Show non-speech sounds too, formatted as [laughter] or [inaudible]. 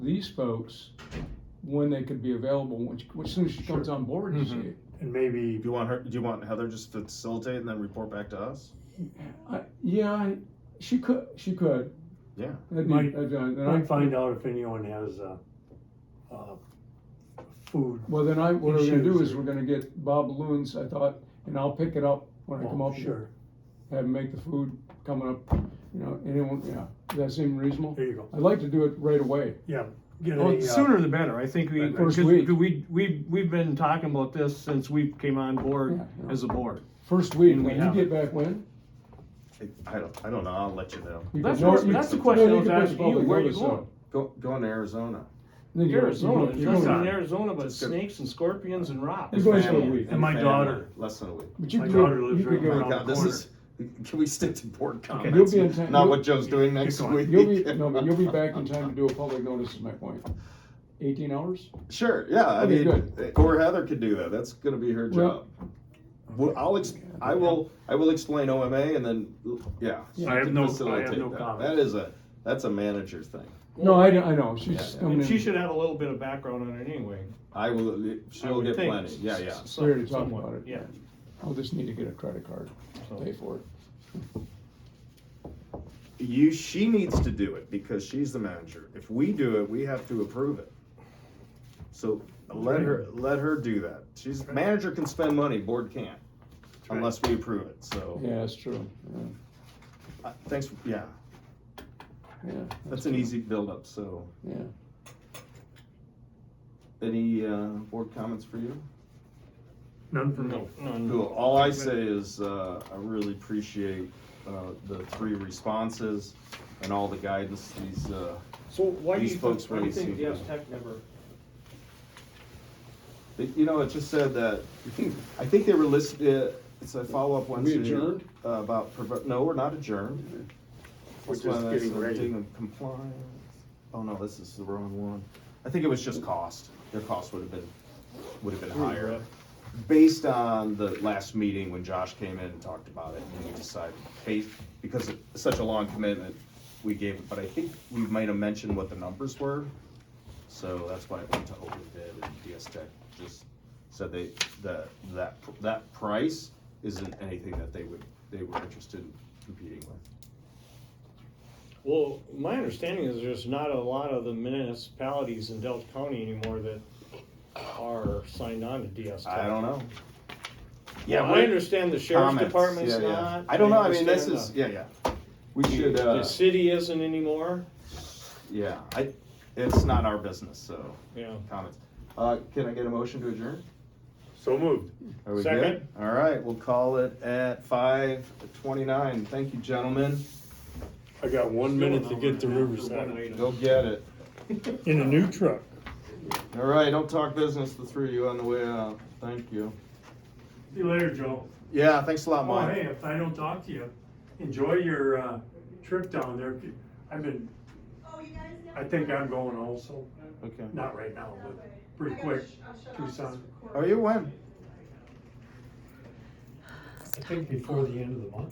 these folks when they could be available, which, as soon as she comes on board and Mhm. shit. And maybe Do you want her? Do you want Heather just to facilitate and then report back to us? I- Yeah, I- she could, she could. Yeah. That'd be- Might- that'd- uh, I Then I might find out if anyone has uh, uh, food. Well, then I, what we're gonna do is Issues. we're gonna get Bob Loons, I thought, and I'll pick it up when I come Oh, up. here. Sure, Have him make the food coming up, you know, anyone, yeah, does that seem reasonable? there you go. I'd like to do it right away. Yeah, get a, Well, the uh, sooner the better. I think we, Right, first because week. we, we, we've been talking about this since we came on board Yeah, yeah. as a board. First week, And we when you have get back when? I don't. I don't know. I'll let you know. You That's can- what- you- that's the no, question I you was can put asking the public you. Where are you notice out. going? Go. Go in Arizona. Then you- Arizona, you there's go- you go- nothing in on. Arizona but It's good. snakes and scorpions and rocks. It's going for a Family week. And my family. daughter. Less than a week. But you My could- daughter lives you could right go- Oh my around the God, this corner. is. Can we stick to board You'll comments? be in time- Not what Joe's doing next Keep going. week. You'll [laughs] be, no, but you'll be back in time to do a public notice is my point. Eighteen hours? Sure. Yeah. I Okay, mean, or Heather could do that. That's going to be her Well- job. Well, I'll. Ex- I will. I will explain OMA and then. Yeah. she I have can no- I have facilitate no that. comments. That is a. That's a manager thing. No, I, I know, she's just coming And she in should have a little bit of background on it anyway. I will. I She'll would get think. plenty. Yeah. Yeah. S- We already talked somewhat, about it. Yeah. I'll just need to get a credit card, so. pay for it. You, she needs to do it because she's the manager. If we do it, we have to approve it. So let her, let her do that. She's, manager can spend money, board can't, right. unless we approve it, so. Yeah, that's true, yeah, uh, Thanks, for- yeah, yeah. that's an easy buildup, so. Yeah. Any, uh, board comments for you? None for me. No, no, no. Cool. All I say is, uh, I really appreciate, uh, the three responses and all the guidance these, uh, So why do These you, folks think- why do you really think see Yes that. Tech never? It- You know, it just said that, I think they were listed, uh, it's a follow-up Wednesday. adjourned? uh, About, prov- no, we're not adjourned. We're That's why just that's getting ready. something Compliance, oh no, this is the wrong one. I think it was just cost, their cost would have been, would have been higher. Based on the last meeting when Josh came in and talked about it, and we decided, hey, because it's such a long commitment, we gave it, but I think we might have mentioned what the numbers were. So that's why it went to open bid and DS Tech just said they, that, that, that price isn't anything that they would, they were interested in competing with. Well, my understanding is there's not a lot of the municipalities in Delta County anymore that are signed on to DS Tech. I don't know. Yeah, I understand the sheriff's Comments. department's Yeah, yeah. not. I don't know, I mean, this understand is, the- yeah, yeah. We should, The uh, city isn't anymore, yeah, I, it's not our business, so, yeah. comments. Uh, can I get a motion to adjourn? So moved. Are we good? Second. All right, we'll call it at five twenty-nine. Thank you, gentlemen. I got one minute to get to Riverside. Go get it. In a new truck. All right, don't talk business, the three of you on the way out. Thank you. See you later, Joe. Yeah, thanks a lot, Oh, Mike. hey, if I don't talk to you, enjoy your, uh, trip down there. I've been, I think I'm going also, Okay. not right now, but pretty quick, Tucson. Are you when? I think before the end of the month.